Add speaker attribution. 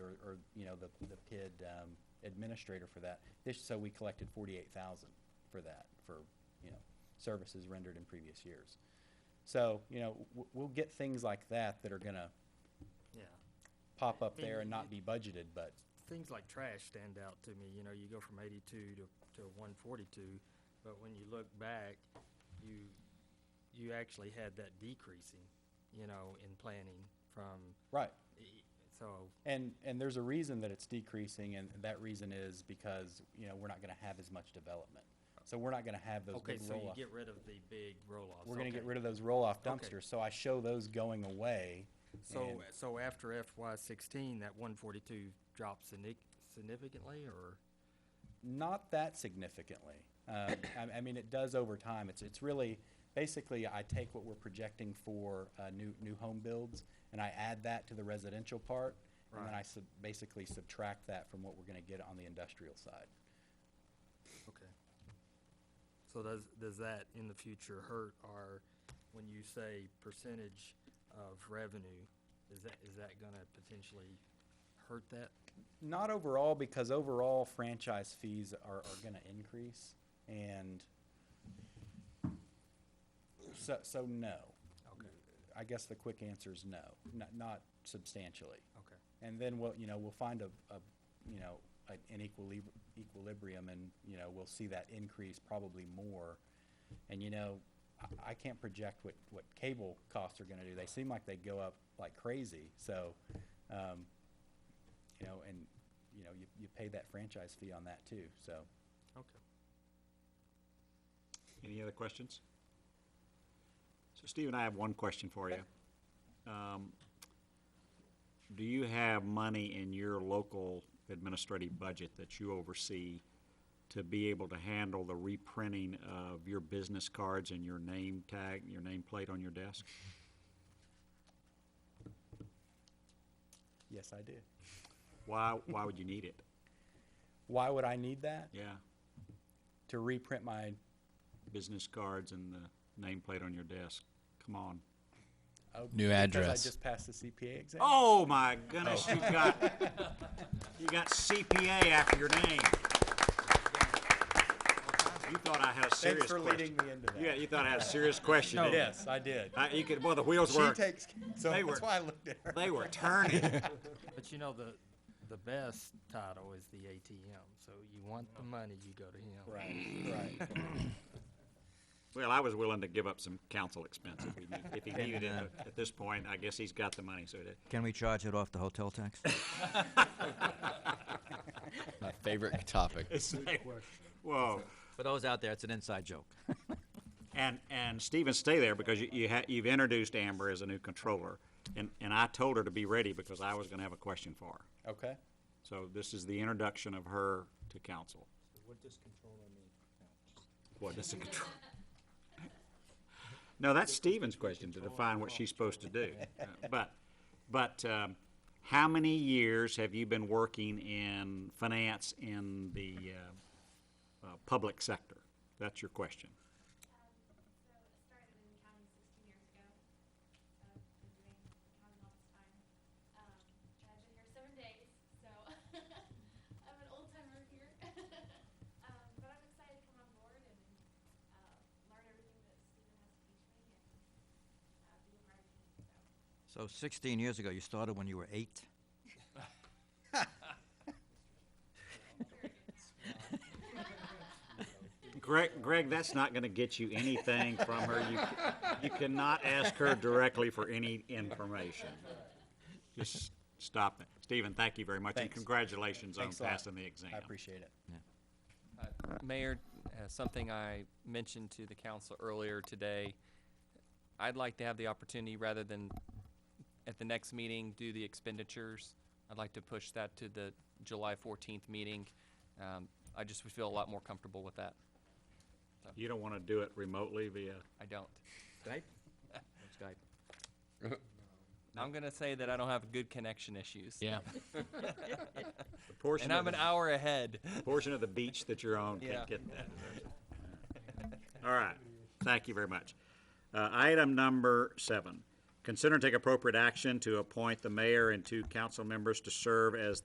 Speaker 1: or, you know, the, the PID um, administrator for that. This, so we collected forty-eight thousand for that, for, you know, services rendered in previous years. So, you know, w- we'll get things like that that are gonna
Speaker 2: Yeah,
Speaker 1: pop up
Speaker 2: Then
Speaker 1: there and
Speaker 2: you-
Speaker 1: not be budgeted, but,
Speaker 2: things like trash stand out to me, you know, you go from eighty-two to, to one forty-two, but when you look back, you, you actually had that decreasing, you know, in planning from,
Speaker 1: right.
Speaker 2: e- so,
Speaker 1: And, and there's a reason that it's decreasing, and that reason is because, you know, we're not gonna have as much development. So we're not gonna have those
Speaker 2: okay,
Speaker 1: big
Speaker 2: so you
Speaker 1: roll-off.
Speaker 2: get rid of the big roll-offs.
Speaker 1: We're gonna get
Speaker 2: okay.
Speaker 1: rid of those roll-off
Speaker 2: Okay.
Speaker 1: dumpsters, so I show those going away.
Speaker 2: So,
Speaker 1: and-
Speaker 2: so after FY sixteen, that one forty-two drops signi- significantly, or?
Speaker 1: Not that significantly. Um, I, I mean, it does over time. It's, it's really, basically, I take what we're projecting for uh, new, new home builds, and I add that to the residential part, and then
Speaker 2: Right.
Speaker 1: I sub- basically subtract that from what we're gonna get on the industrial side.
Speaker 2: Okay. So does, does that in the future hurt our, when you say percentage of revenue, is that, is that gonna potentially hurt that?
Speaker 1: Not overall, because overall franchise fees are, are gonna increase, and so, so no.
Speaker 2: Okay.
Speaker 1: I guess the quick answer is no, not, not substantially.
Speaker 2: Okay.
Speaker 1: And then we'll, you know, we'll find a, a, you know, an an equilib- equilibrium and, you know, we'll see that increase probably more. And, you know, I, I can't project what, what cable costs are gonna do. They seem like they go up like crazy, so, um, you know, and, you know, you, you pay that franchise fee on that too, so.
Speaker 2: Okay.
Speaker 3: Any other questions? So Steve and I have one question for you. Um, Do you have money in your local administrative budget that you oversee to be able to handle the reprinting of your business cards and your name tag, your nameplate on your desk?
Speaker 1: Yes, I do.
Speaker 3: Why, why would you need it?
Speaker 1: Why would I need that?
Speaker 3: Yeah,
Speaker 1: To reprint my,
Speaker 3: business cards and the nameplate on your desk. Come on.
Speaker 1: oh,
Speaker 4: New
Speaker 1: Because
Speaker 4: address.
Speaker 1: I just passed the CPA exam.
Speaker 3: Oh, my goodness, you got, you got CPA after your name. You thought I had a
Speaker 1: Thanks
Speaker 3: serious
Speaker 1: for leading
Speaker 3: question.
Speaker 1: me into that.
Speaker 3: Yeah, you thought I had a serious question, didn't you?
Speaker 1: Yes, I did.
Speaker 3: I- You could, boy, the wheels
Speaker 1: She
Speaker 3: were,
Speaker 1: takes. So
Speaker 3: They
Speaker 1: that's
Speaker 3: were-
Speaker 1: why I looked at her.
Speaker 3: they were turning.
Speaker 2: But you know, the, the best title is the ATM, so you want the money, you go to him.
Speaker 1: Right, right.
Speaker 3: Well, I was willing to give up some council expense if he needed, if he needed it but at this point. I guess he's got the money, so that,
Speaker 5: Can we charge it off the hotel tax?
Speaker 4: My favorite topic.
Speaker 3: whoa.
Speaker 5: For those out there, it's an inside joke.
Speaker 3: And, and Stephen, stay there because you, you ha, you've introduced Amber as a new controller. And, and I told her to be ready because I was gonna have a question for her.
Speaker 1: Okay.
Speaker 3: So this is the introduction of her to council. What does controller mean? No, that's Stephen's question to define what she's supposed to do. Uh, But, but um, how many years have you been working in finance in the uh, uh, public sector? That's your question.
Speaker 6: So I started in accounting 16 years ago. So I've been doing accounting all this time. Um, and I've been here seven days, so I'm an old timer here. um, but I'm excited to come on board and uh, learn everything that Stephen has to teach me and uh, be a part of the team. So
Speaker 5: So 16 years ago, you started when you were eight?
Speaker 3: Greg, Greg, that's not gonna get you anything from her. You, you cannot ask her directly for any information. Just stop that. Stephen, thank you very much, and
Speaker 1: Thanks.
Speaker 3: congratulations on
Speaker 1: Thanks a lot.
Speaker 3: passing the exam.
Speaker 1: I appreciate it.
Speaker 7: Mayor, uh, something I mentioned to the council earlier today, I'd like to have the opportunity, rather than at the next meeting, do the expenditures. I'd like to push that to the July fourteenth meeting. Um, I just would feel a lot more comfortable with that.
Speaker 3: You don't wanna do it remotely via,
Speaker 7: I don't. Skype? Skype. I'm gonna say that I don't have good connection issues.
Speaker 4: Yeah.
Speaker 3: the portion
Speaker 7: And
Speaker 3: of,
Speaker 7: I'm an
Speaker 3: the-
Speaker 7: hour ahead.
Speaker 3: portion of the beach that you're on can't
Speaker 7: Yeah.
Speaker 3: get that. All right, thank you very much. Uh, item number seven, consider and take appropriate action to appoint the mayor and two council members to serve as